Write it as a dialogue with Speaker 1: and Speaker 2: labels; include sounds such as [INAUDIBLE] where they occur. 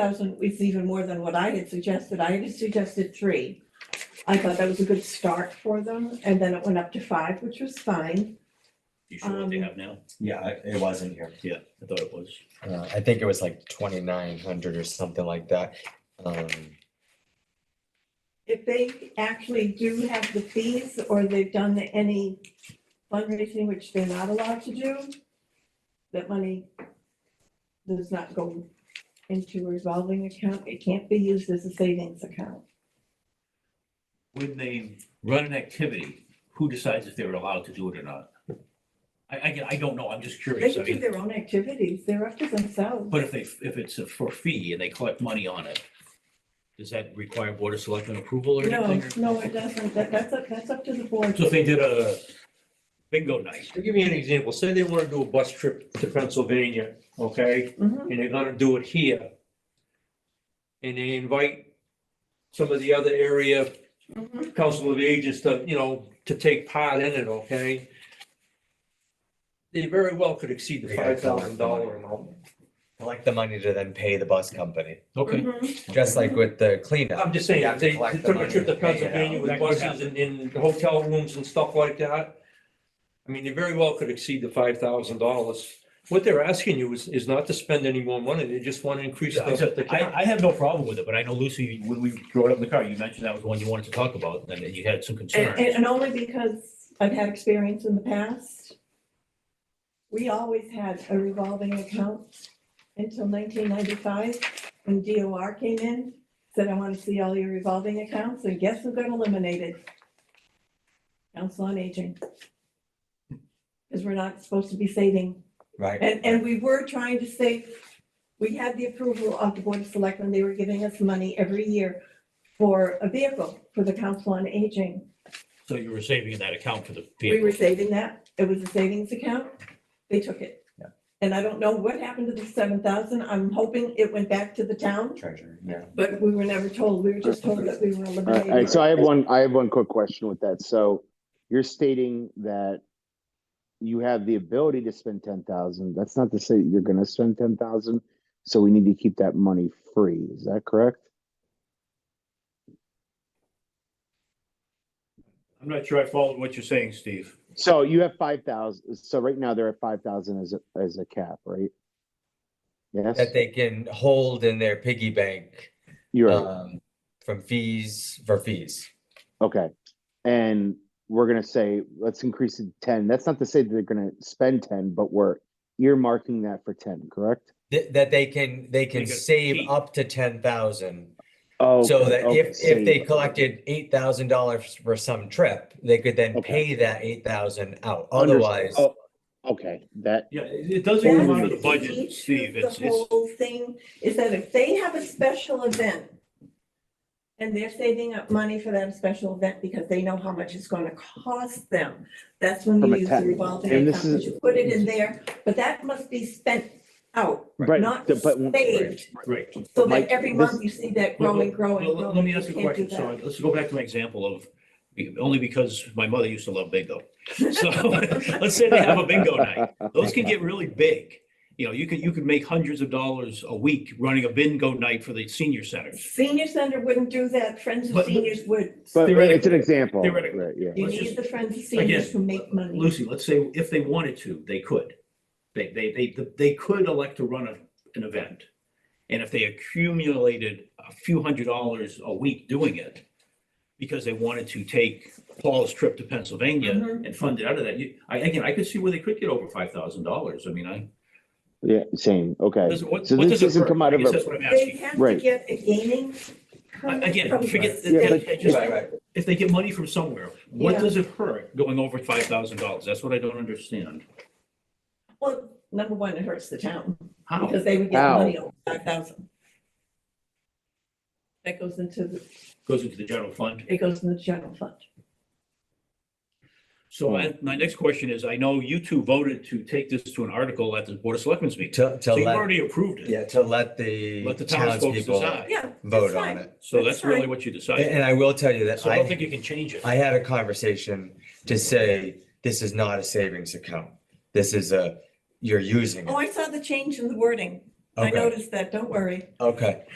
Speaker 1: thousand is even more than what I had suggested. I had suggested three. I thought that was a good start for them, and then it went up to five, which was fine.
Speaker 2: You sure what they
Speaker 1: Um,
Speaker 2: have now?
Speaker 3: Yeah, I- it was in here.
Speaker 2: Yeah, I thought it was.
Speaker 4: Uh, I think it was like twenty-nine hundred or something like that. Um,
Speaker 1: If they actually do have the fees or they've done any fundraising, which they're not allowed to do, that money does not go into a revolving account. It can't be used as a savings account.
Speaker 2: When they run an activity, who decides if they're allowed to do it or not? I, I, I don't know, I'm just
Speaker 1: They
Speaker 2: curious. I
Speaker 1: can do
Speaker 2: mean,
Speaker 1: their own activities. They're up to themselves.
Speaker 2: but if they, if it's a for fee and they collect money on it, does that require Board of Selectmen approval or
Speaker 1: No,
Speaker 2: anything? or-
Speaker 1: no, it doesn't. That, that's, up- that's up to the board.
Speaker 2: So if they did a bingo night,
Speaker 5: To give you an example, say they want to do a bus trip to Pennsylvania, okay,
Speaker 1: Mhm.
Speaker 5: and they're gonna do it here. And they invite some of the other area
Speaker 1: Mhm.
Speaker 5: council of agents to, you know, to take part in it, okay? They very well could exceed the
Speaker 4: They gotta
Speaker 5: five
Speaker 4: come up
Speaker 5: thousand
Speaker 4: with the money.
Speaker 5: dollar amount.
Speaker 4: collect the money to then pay the bus company,
Speaker 2: okay,
Speaker 1: Mhm.
Speaker 4: just like with the cleanup.
Speaker 5: I'm just
Speaker 4: You
Speaker 5: saying,
Speaker 4: have to
Speaker 5: they
Speaker 4: collect
Speaker 5: they
Speaker 4: the
Speaker 5: took a
Speaker 4: money
Speaker 5: trip to
Speaker 4: and pay it
Speaker 5: Pennsylvania
Speaker 4: out.
Speaker 5: with
Speaker 2: That could
Speaker 5: buses
Speaker 2: happen.
Speaker 5: and, and hotel rooms and stuff like that. I mean, they very well could exceed the five thousand dollars. What they're asking you is, is not to spend any more money. They just want to increase
Speaker 2: Yeah,
Speaker 5: the, the
Speaker 2: I,
Speaker 5: cap.
Speaker 2: I have no problem with it, but I know Lucy, when we drove it up in the car, you mentioned that was the one you wanted to talk about, and that you had some
Speaker 1: And,
Speaker 2: concerns.
Speaker 1: and- and only because I've had experience in the past. We always had a revolving account until nineteen ninety-five, when DOR came in, said, I want to see all your revolving accounts, and guess who got eliminated? Council on Aging. Because we're not supposed to be saving
Speaker 4: Right.
Speaker 1: And, and we were trying to save, we had the approval of the Board of Selectmen, they were giving us money every year for a vehicle for the Council on Aging.
Speaker 2: So you were saving in that account for the
Speaker 1: We were
Speaker 2: vehicle.
Speaker 1: saving that, it was a savings account, they took it.
Speaker 4: Yeah.
Speaker 1: And I don't know what happened to the seven thousand, I'm hoping it went back to the town,
Speaker 4: Treasure, yeah.
Speaker 1: but we were never told, we were just told that we were
Speaker 6: All right, all right,
Speaker 1: eliminated.
Speaker 6: so I have one, I have one quick question with that. So you're stating that you have the ability to spend ten thousand. That's not to say you're gonna spend ten thousand. So we need to keep that money free. Is that correct?
Speaker 2: I'm not sure I followed what you're saying, Steve.
Speaker 6: So you have five thousand, so right now they're at five thousand as, a as a cap, right? Yes,
Speaker 4: That they can hold in their piggy bank,
Speaker 6: you're right.
Speaker 4: um, from fees, for fees.
Speaker 6: Okay. And we're gonna say, let's increase it to ten. That's not to say that they're gonna spend ten, but we're earmarking that for ten, correct?
Speaker 4: That, that they can, they can
Speaker 2: They can
Speaker 4: save
Speaker 2: keep.
Speaker 4: up to ten thousand.
Speaker 6: Oh.
Speaker 4: So that if, if they
Speaker 6: collected.
Speaker 4: collected eight thousand dollars for some trip, they could then
Speaker 6: Okay.
Speaker 4: pay that eight thousand out,
Speaker 6: Understood.
Speaker 4: otherwise.
Speaker 6: Oh, Okay, that,
Speaker 2: Yeah, it it doesn't
Speaker 1: That's
Speaker 2: come out of the
Speaker 1: issue
Speaker 2: budget,
Speaker 1: of
Speaker 2: Steve, it's,
Speaker 1: The
Speaker 2: it's,
Speaker 1: whole thing is that if they have a special event and they're saving up money for that special event because they know how much it's gonna cost them, that's when
Speaker 6: From
Speaker 1: you
Speaker 6: a
Speaker 1: use
Speaker 6: tax-
Speaker 1: the revolving
Speaker 6: and this
Speaker 1: account, but
Speaker 6: is-
Speaker 1: you put it in there, but that must be spent out,
Speaker 6: right,
Speaker 1: not
Speaker 6: the- but,
Speaker 1: saved,
Speaker 2: right.
Speaker 1: so that
Speaker 6: Mike,
Speaker 1: every
Speaker 6: this-
Speaker 1: month you see that growing, growing,
Speaker 2: Well, let- Let
Speaker 1: growing.
Speaker 2: me ask
Speaker 1: You
Speaker 2: you a
Speaker 1: can't do
Speaker 2: question, so
Speaker 1: that.
Speaker 2: let's go back to my example of, only because my mother used to love bingo. So, [LAUGHS] let's say they have a bingo
Speaker 6: [LAUGHS]
Speaker 2: night, those can get really big. You know, you could, you could make hundreds of dollars a week running a bingo night for the senior centers.
Speaker 1: Senior center wouldn't do that, Friends of
Speaker 2: But-
Speaker 1: Seniors would,
Speaker 6: but it's an
Speaker 2: Theoretically-
Speaker 6: example,
Speaker 2: theoretically.
Speaker 6: right, yeah.
Speaker 1: you
Speaker 2: let's
Speaker 1: need
Speaker 2: just-
Speaker 1: the Friends of
Speaker 2: Again,
Speaker 1: Seniors to make money.
Speaker 2: Lucy, let's say if they wanted to, they could. They, they, they, they could elect to run a, an event. And if they accumulated a few hundred dollars a week doing it, because they wanted to take Paul's trip to Pennsylvania
Speaker 1: Mhm.
Speaker 2: and fund it out of that, you, I, again, I could see where they could get over five thousand dollars. I mean, I.
Speaker 6: Yeah, same, okay.
Speaker 2: does- what-
Speaker 6: So
Speaker 2: what
Speaker 6: this
Speaker 2: does it
Speaker 6: doesn't
Speaker 2: hurt?
Speaker 6: come out
Speaker 2: I
Speaker 6: of
Speaker 2: guess
Speaker 6: a-
Speaker 2: That's what I'm
Speaker 1: They
Speaker 2: asking.
Speaker 1: have to
Speaker 6: Right.
Speaker 1: get a gaining.
Speaker 2: I-
Speaker 1: permit from
Speaker 2: Again,
Speaker 1: the
Speaker 2: forget,
Speaker 6: Yeah,
Speaker 2: that-
Speaker 6: but-
Speaker 2: that- just-
Speaker 4: Right, right.
Speaker 2: if they get money from somewhere, what
Speaker 1: Yeah.
Speaker 2: does it hurt going over five thousand dollars? That's what I don't understand.
Speaker 1: Well, number one, it hurts the town
Speaker 2: How?
Speaker 1: because they would get
Speaker 6: How?
Speaker 1: money over five thousand. That goes into, the
Speaker 2: Goes into the general fund?
Speaker 1: it goes in the general fund.
Speaker 2: So my, my next question is, I know you two voted to take this to an article at the Board of Selectmen's meeting.
Speaker 4: To, to
Speaker 2: So you've
Speaker 4: let,
Speaker 2: already approved it.
Speaker 4: yeah, to let the
Speaker 2: Let the townsfolk
Speaker 4: townspeople
Speaker 2: decide.
Speaker 1: Yeah.
Speaker 4: vote
Speaker 1: that's
Speaker 4: on
Speaker 1: fine.
Speaker 4: it.
Speaker 2: So
Speaker 1: That's
Speaker 2: that's really
Speaker 1: fine.
Speaker 2: what you
Speaker 4: And,
Speaker 2: decided.
Speaker 4: and I will tell you that
Speaker 2: So I don't
Speaker 4: I,
Speaker 2: think you can change it.
Speaker 4: I had a conversation to say, this is not a savings account. This is a, you're using
Speaker 1: Oh,
Speaker 4: it.
Speaker 1: I saw the change in the wording. I
Speaker 4: Okay,
Speaker 1: noticed that, don't worry.
Speaker 4: okay.